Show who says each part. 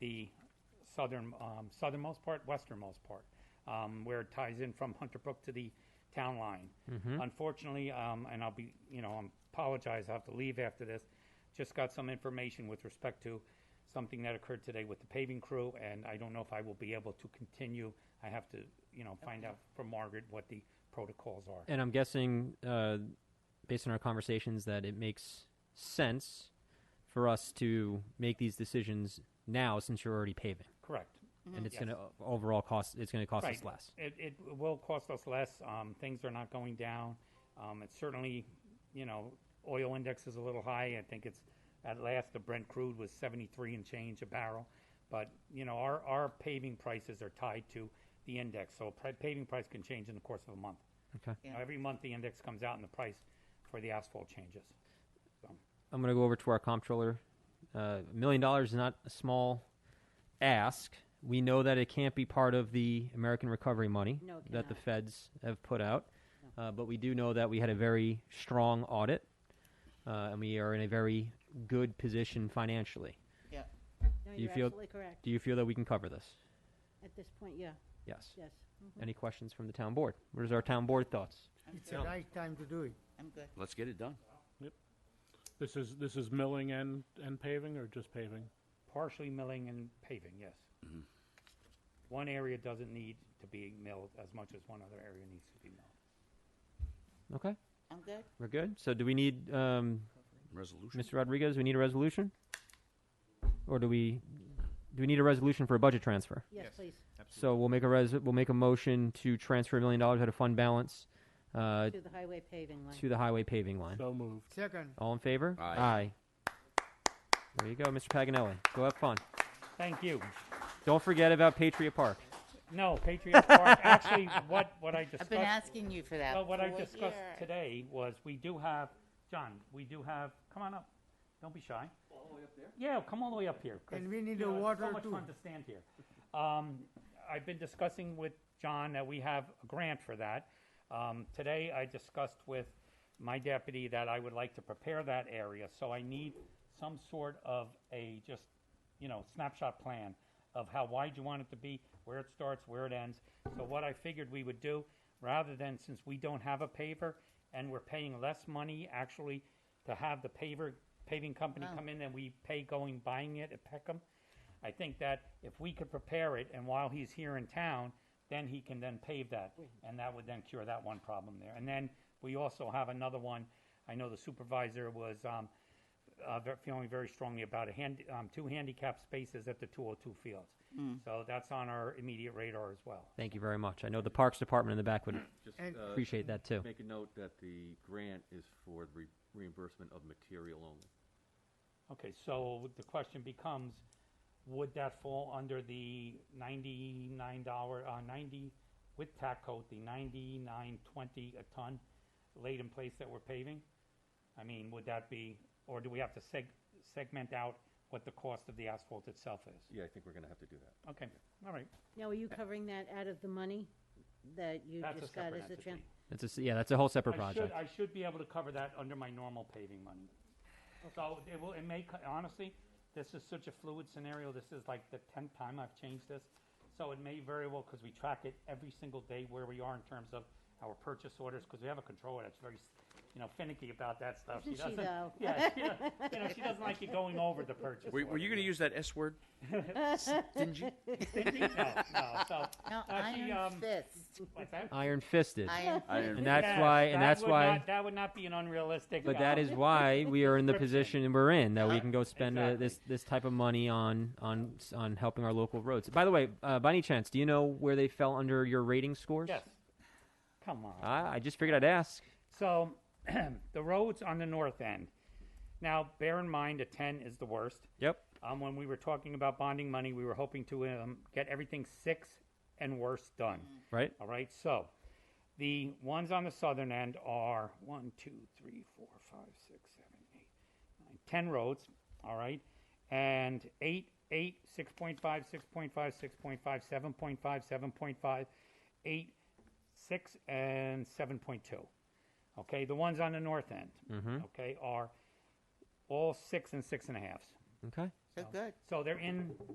Speaker 1: the southern, um, southernmost part, westernmost part, um, where it ties in from Hunter Brook to the town line. Unfortunately, um, and I'll be, you know, I apologize, I have to leave after this. Just got some information with respect to something that occurred today with the paving crew, and I don't know if I will be able to continue. I have to, you know, find out from Margaret what the protocols are.
Speaker 2: And I'm guessing, uh, based on our conversations, that it makes sense for us to make these decisions now since you're already paving.
Speaker 1: Correct.
Speaker 3: Mm-hmm.
Speaker 2: And it's
Speaker 1: Yes.
Speaker 2: going to overall cost, it's going to cost us
Speaker 1: Right.
Speaker 2: less.
Speaker 1: It, it will cost us less. Um, things are not going down. Um, it's certainly, you know, oil index is a little high. I think it's at last the Brent crude was 73 and change a barrel. But, you know, our, our paving prices are tied to the index. So pri- paving price can change in the course of a month.
Speaker 2: Okay.
Speaker 1: You know, every month the index comes out and the price for the asphalt changes.
Speaker 2: I'm going to go over to our comptroller. Uh, A million dollars is not a small ask. We know that it can't be part of the American recovery money
Speaker 3: No, it
Speaker 2: that the
Speaker 3: cannot.
Speaker 2: feds have put out. Uh, but we do know that we had a very strong audit uh, and we are in a very good position financially.
Speaker 4: Yeah.
Speaker 3: No,
Speaker 2: Do you
Speaker 3: you're
Speaker 2: feel-
Speaker 3: absolutely correct.
Speaker 2: Do you feel that we can cover this?
Speaker 3: At this point, yeah,
Speaker 2: Yes.
Speaker 3: yes. Mhm.
Speaker 2: Any questions from the town board? What is our town board thoughts?
Speaker 5: It's a nice time to do it.
Speaker 4: I'm good.
Speaker 6: Let's get it done.
Speaker 7: This is, this is milling and, and paving or just paving?
Speaker 1: Partially milling and paving, yes.
Speaker 2: Mm-hmm.
Speaker 1: One area doesn't need to be milled as much as one other area needs to be milled.
Speaker 2: Okay,
Speaker 4: I'm good.
Speaker 2: we're good. So do we need, um,
Speaker 6: Resolution.
Speaker 2: Mr. Rodriguez, we need a resolution? Or do we, do we need a resolution for a budget transfer?
Speaker 3: Yes,
Speaker 5: Yes.
Speaker 3: please,
Speaker 2: So we'll make a res, we'll make a motion to transfer a million dollars out of fund balance, uh,
Speaker 3: to the highway paving line.
Speaker 2: to the highway paving line.
Speaker 7: So moved.
Speaker 5: Second,
Speaker 2: All in favor?
Speaker 6: Aye.
Speaker 2: Aye. There you go, Mr. Paganelli. Go have fun.
Speaker 1: Thank you.
Speaker 2: Don't forget about Patriot Park.
Speaker 1: No, Patriot Park, actually, what, what I
Speaker 4: I've been
Speaker 1: discussed,
Speaker 4: asking you for that.
Speaker 1: well, what I
Speaker 4: for a
Speaker 1: discussed
Speaker 4: year.
Speaker 1: today was, we do have, John, we do have, come on up, don't be shy. All the way up there? Yeah, come all the way up here. 'cause,
Speaker 5: And we need
Speaker 1: you
Speaker 5: the
Speaker 1: know, it's
Speaker 5: water
Speaker 1: So
Speaker 5: too.
Speaker 1: much fun to stand here. Um, I've been discussing with John that we have a grant for that. Um, today, I discussed with my deputy that I would like to prepare that area, so I need some sort of a just, you know, snapshot plan of how wide you want it to be, where it starts, where it ends. So what I figured we would do, rather than, since we don't have a paver and we're paying less money actually to have the paver, paving company come in than we pay going buying it at Peckham, I think that if we could prepare it, and while he's here in town, then he can then pave that, and that would then cure that one problem there. And then we also have another one, I know the supervisor was, um, uh, ve- feeling very strongly about a hand, um, two handicap spaces at the two oh two fields. So that's on our immediate radar as well.
Speaker 2: Thank you very much. I know the Parks Department in the back would
Speaker 8: Just
Speaker 5: And-
Speaker 8: uh,
Speaker 2: appreciate that too.
Speaker 8: make a note that the grant is for the re- reimbursement of material only.
Speaker 1: Okay, so the question becomes, would that fall under the ninety-nine dollar, uh, ninety, with tack coat, the ninety-nine twenty a ton laid in place that we're paving? I mean, would that be, or do we have to seg- segment out what the cost of the asphalt itself is?
Speaker 8: Yeah, I think we're going to have to do that.
Speaker 1: Okay, all right,
Speaker 3: Now, are you covering that out of the money that you
Speaker 1: That's a
Speaker 3: just got
Speaker 1: separate
Speaker 3: as a tran?
Speaker 1: entity.
Speaker 2: That's a, s- yeah, that's a whole separate
Speaker 1: I should,
Speaker 2: project.
Speaker 1: I should be able to cover that under my normal paving money. So it will, it may, co- honestly, this is such a fluid scenario, this is like the tenth time I've changed this. So it may very well, because we track it every single day where we are in terms of our purchase orders, because we have a controller that's very, s- you know, finicky about that stuff.
Speaker 3: Isn't she,
Speaker 1: doesn't-
Speaker 3: though?
Speaker 1: Yeah, she, don't- you know, she doesn't like you going over the purchase.
Speaker 6: Were, were you
Speaker 1: order.
Speaker 6: going to use that S word? Stingy?
Speaker 1: Stingy? No, no, so,
Speaker 4: No,
Speaker 1: uh, she,
Speaker 4: iron
Speaker 1: um,
Speaker 4: fist.
Speaker 1: what's that?
Speaker 2: Iron fisted.
Speaker 4: Iron
Speaker 6: I didn't-
Speaker 2: And that's
Speaker 1: Yes,
Speaker 2: why, and
Speaker 1: that
Speaker 2: that's
Speaker 1: would
Speaker 2: why,
Speaker 1: not- That would not be an unrealistic.
Speaker 2: but that
Speaker 1: uh,
Speaker 2: is why we are in the
Speaker 1: Prescription.
Speaker 2: position we're in, that we can go
Speaker 1: Uh-huh.
Speaker 2: spend uh,
Speaker 1: Exactly.
Speaker 2: this, this type of money on, on, s- on helping our local roads. By the way, uh, by any chance, do you know where they fell under your rating scores? Ah,
Speaker 1: Yes. Come on.
Speaker 2: I, I just figured I'd ask.
Speaker 1: So the roads on the north end. Now, bear in mind, a 10 is the worst.
Speaker 2: Yep.
Speaker 1: Um, when we were talking about bonding money, we were hoping to um, get everything six and worse done.
Speaker 2: Right?
Speaker 1: All right. So the ones on the southern end are one, two, three, four, five, six, seven, eight, nine, ten roads. All right. And eight, eight, 6.5, 6.5, 6.5, 7.5, 7.5, 8, 6, and 7.2. Okay. The ones on the north end, okay, are all six and six and a halves.
Speaker 2: Okay.
Speaker 4: So good.
Speaker 1: So they're in